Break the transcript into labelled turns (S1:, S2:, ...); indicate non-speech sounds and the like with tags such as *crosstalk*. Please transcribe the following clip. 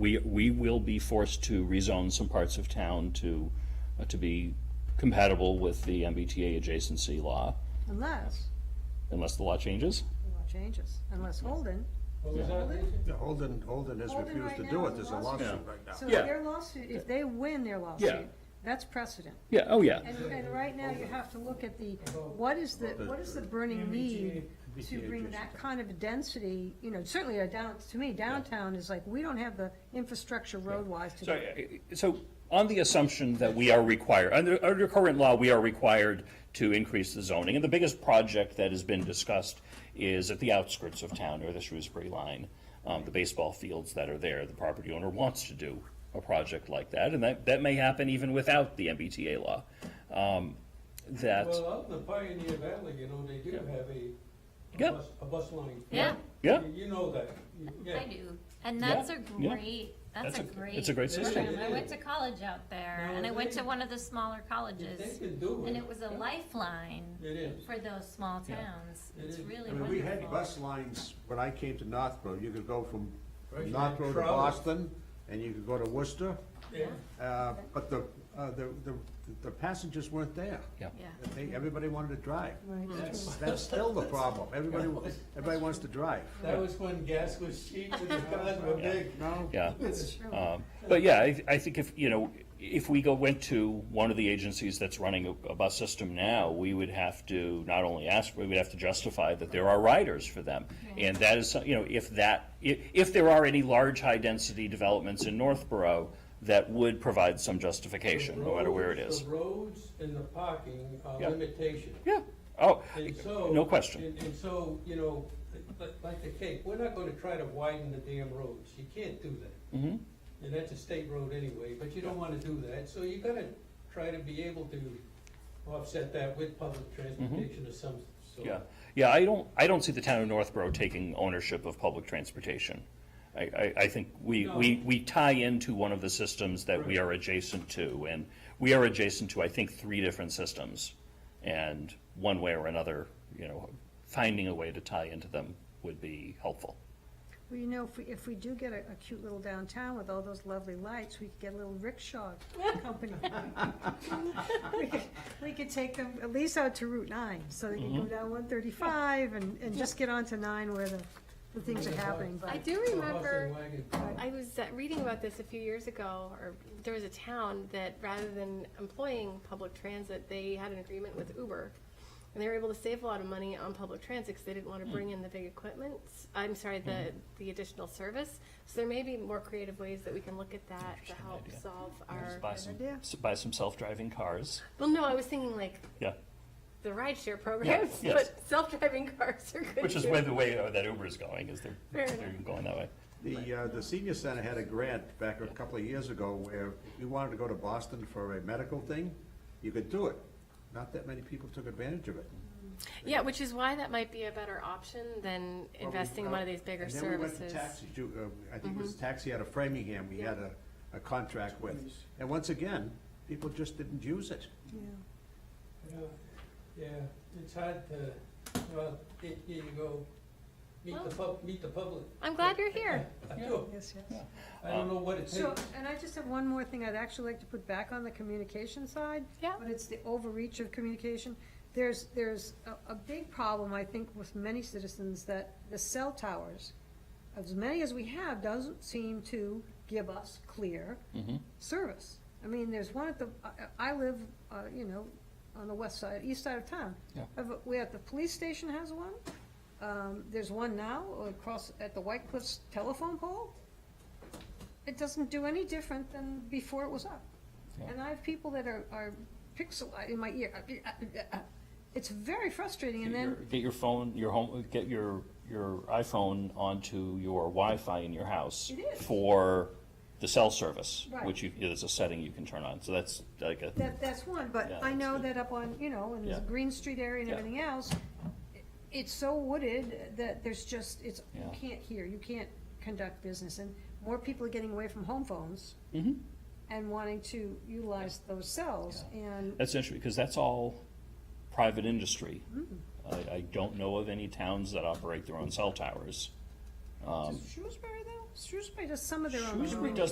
S1: we, we will be forced to rezone some parts of town to, uh, to be compatible with the MBTA adjacency law,
S2: Unless,
S1: unless the law changes.
S2: the law changes, unless Holden,
S3: What was that?
S4: Yeah, Holden, Holden has
S2: Holden
S4: refused
S2: right
S4: to do
S2: now
S4: it,
S2: is
S4: there's a
S2: lawsuit.
S4: lawsuit right now.
S2: so
S1: Yeah.
S2: their lawsuit, if they win their
S1: Yeah.
S2: lawsuit, that's precedent.
S1: Yeah, oh, yeah.
S2: And, and right now, you have to look at the, what is the, what is the burning
S1: E
S2: need to bring that kind of density, you know, certainly a down, to me, downtown is like, we don't have the infrastructure road-wise to do
S1: So, uh, so on the assumption that we are required, under, under current law, we are required to increase the zoning, and the biggest project that has been discussed is at the outskirts of town, or the Shrewsbury line, um, the baseball fields that are there, the property owner wants to do a project like that, and that, that may happen even without the MBTA law. Um, That,
S3: Well, out in the Pioneer Valley, you know, they do have a,
S1: Yeah.
S3: a bus, a bus line.
S5: Yeah.
S1: Yeah.
S3: You- You know that, You- yeah.
S5: I do, and that's a
S1: yeah.
S5: great, that's a great.
S1: it's a great system.
S5: program. I went to college out there,
S3: No,
S5: and I went
S3: they-
S5: to one of the smaller
S3: They
S5: colleges,
S3: can do it.
S5: and it was a lifeline
S3: It is.
S5: for those small towns.
S3: It
S5: It's
S3: is.
S5: really
S4: I mean, we had
S5: wonderful.
S4: bus lines when I came to Northborough, you could go from
S3: Right, you had
S4: Northborough to
S3: travel.
S4: Boston, and you could go to Worcester,
S3: Yeah.
S4: uh, but the, uh, the, the, the passengers weren't there.
S1: Yeah.
S5: Yeah.
S4: They, everybody wanted to drive.
S2: Right.
S4: That's,
S2: *laughs*
S4: that's still the problem, everybody, everybody wants to drive.
S3: That was when gas was cheap and the cars were big.
S4: No?
S1: yeah.
S3: It's-
S1: Um, But yeah, I, I think if, you know, if we go, went to one of the agencies that's running a, a bus system now, we would have to not only ask, we would have to justify that there are riders for them. And that is, some- you know, if that, if, if there are any large high-density developments in Northborough, that would provide some justification, no matter where it is.
S3: The roads and the parking are
S1: Yeah.
S3: limitation.
S1: Yeah, oh,
S3: And so.
S1: no question.
S3: And, and so, you know, like, like the Cape, we're not gonna try to widen the damn roads, you can't do that.
S1: Mhm.
S3: And that's a state road anyway, but you don't wanna do that, so you gotta try to be able to offset that with public transportation of some sort.
S1: Mm-hmm. Yeah, yeah, I don't, I don't see the town of Northborough taking ownership of public transportation. I, I, I think we, we,
S3: No.
S1: we tie into one of the systems that we
S3: Right.
S1: are adjacent to, and we are adjacent to, I think, three different systems. And one way or another, you know, finding a way to tie into them would be helpful.
S2: Well, you know, if we, if we do get a, a cute little downtown with all those lovely lights, we could get a little rickshaw company. We could- We could take them at least out to Route nine, so they can go down one thirty-five and, and just get onto nine where the, the things are happening,
S6: I
S2: but.
S6: do
S3: It's a horse and
S6: remember,
S3: wagon.
S6: I was uh, reading about this a few years ago, or there was a town that rather than employing public transit, they had an agreement with Uber. And they were able to save a lot of money on public transit because they didn't want
S1: Hmm.
S6: to bring in the big equipment, I'm sorry, the, the additional service. So there may be more creative ways that we can look at that to
S1: Interesting
S6: help
S1: idea.
S6: solve
S1: Just
S6: our,
S1: buy some,
S2: idea.
S1: s- buy some self-driving cars,
S6: well, no, I was thinking like
S1: yeah,
S6: the rideshare programs, *laughs*
S1: yes.
S6: but self-driving cars are good
S1: which is
S6: too.
S1: where the way uh, that Uber is going, is they're,
S6: Fair
S1: they're
S6: enough.
S1: going that way.
S4: The, uh, the senior center had a grant back a couple of years ago where we wanted to go to Boston for a medical thing. You could do it. Not that many people took advantage of it.
S6: Yeah, which is why that might be a better option than investing in one of these bigger
S4: uh, And
S6: services.
S4: then
S6: Mm-hmm.
S4: we went to taxis. You, uh, I think it was taxi out of Framingham we had a, a contract with. And once again, people just didn't use it.
S3: Yeah, Yeah, it's hard to, well, here here you go, meet the pub, meet the public.
S6: I'm glad you're here.
S3: *laughs* I do.
S2: Yes, yes.
S3: I don't know what it
S2: So,
S3: takes.
S2: and I just have one more thing I'd actually like to put back on the communication side.
S6: Yeah.
S2: But it's the overreach of communication. There's, there's a, a big problem, I think, with many citizens that the cell towers, as many as we have, doesn't seem to give us clear
S1: Mm-hmm.
S2: service. I mean, there's one at the, I, I live, uh, you know, on the west side, east side of town.
S1: Yeah.
S2: Have a- We have, the police station has one. Um, there's one now across, at the White Cliffs telephone pole it doesn't do any different than before it was up. And I have people that are, are pixelized in my ear. uh, It's very frustrating, and
S1: Get your-
S2: then,
S1: Get your phone, your home, get your, your iPhone onto your Wi-Fi in your house.
S2: It is.
S1: For the cell service,
S2: Right.
S1: which you, there's a setting you can turn on, so that's like a,
S2: that, that's one, but
S1: Yeah,
S2: I
S1: that's
S2: know
S1: good.
S2: that up on, you know, in the
S1: Yeah.
S2: Green Street area and
S1: Yeah.
S2: everything else, i- it's so wooded that there's just, it's, you
S1: Yeah.
S2: can't hear, you can't conduct business, and more people are getting away from home phones and wanting to utilize those cells, and
S1: that's interesting, because that's all private industry.
S2: Mm.
S1: I, I don't know of any towns that operate their own cell towers.
S2: Does Shrewsbury though? Shrewsbury does some of their own.
S1: um, Shrewsbury
S2: roads.
S1: does